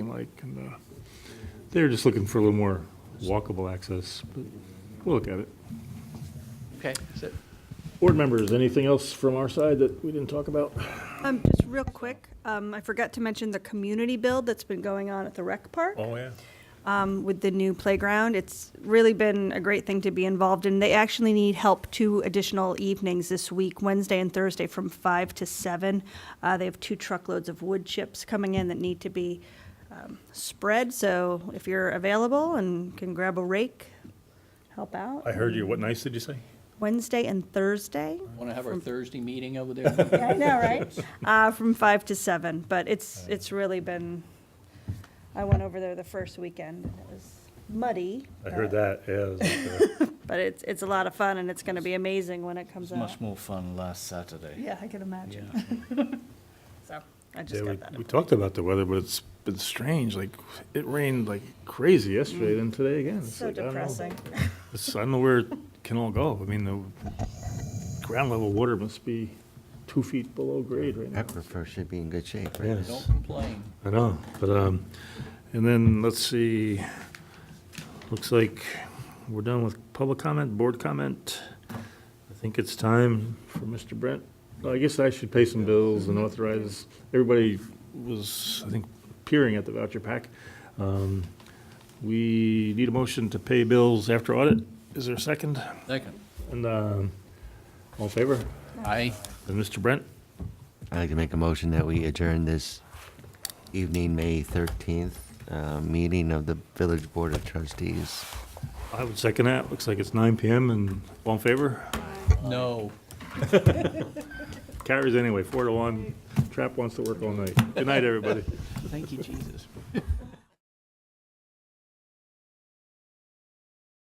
like, and uh, they're just looking for a little more walkable access, but we'll look at it. Okay, is it- Board members, anything else from our side that we didn't talk about? Um, just real quick, um, I forgot to mention the community build that's been going on at the rec park. Oh, yeah. um, with the new playground. It's really been a great thing to be involved in. They actually need help two additional evenings this week, Wednesday and Thursday, from five to seven. Uh, they have two truckloads of wood chips coming in that need to be um, spread. So if you're available and can grab a rake, help out. I heard you. What nights did you say? Wednesday and Thursday. want to have our Thursday meeting over there? Yeah, I know, right? Uh, from five to seven, but it's, it's really been, I went over there the first weekend, and it was muddy. I heard but- that, yeah. it was uh, up there. But it's, it's a lot of fun, and it's gonna be amazing when it comes was out. much more fun last Saturday. Yeah, I can imagine. So, I Yeah, just we- got that. We talked about the weather, but it's been strange, like, it rained like crazy yesterday, then today again. It's Mm. So like, I don't know. depressing. It's- I don't know where it can all go. I mean, the ground level water must be two feet below grade right now. Aquifer should be in good shape, right? Yes. Don't complain. I know, but, um, and then, let's see, looks like we're done with public comment, board comment. I think it's time for Mr. Brent. Well, I guess I should pay some bills and authorize, everybody was, I think, peering at the voucher pack. Um, We need a motion to pay bills after audit. Is there a second? Second. And, um, all in favor? Aye. And Mr. Brent? I'd like to make a motion that we adjourn this evening, May 13th, uh, meeting of the Village Board of Trustees. I would second that. Looks like it's nine PM and all in favor? No. Carries anyway, four to one. Trap wants to work all night. Good night, everybody. Thank you, Jesus.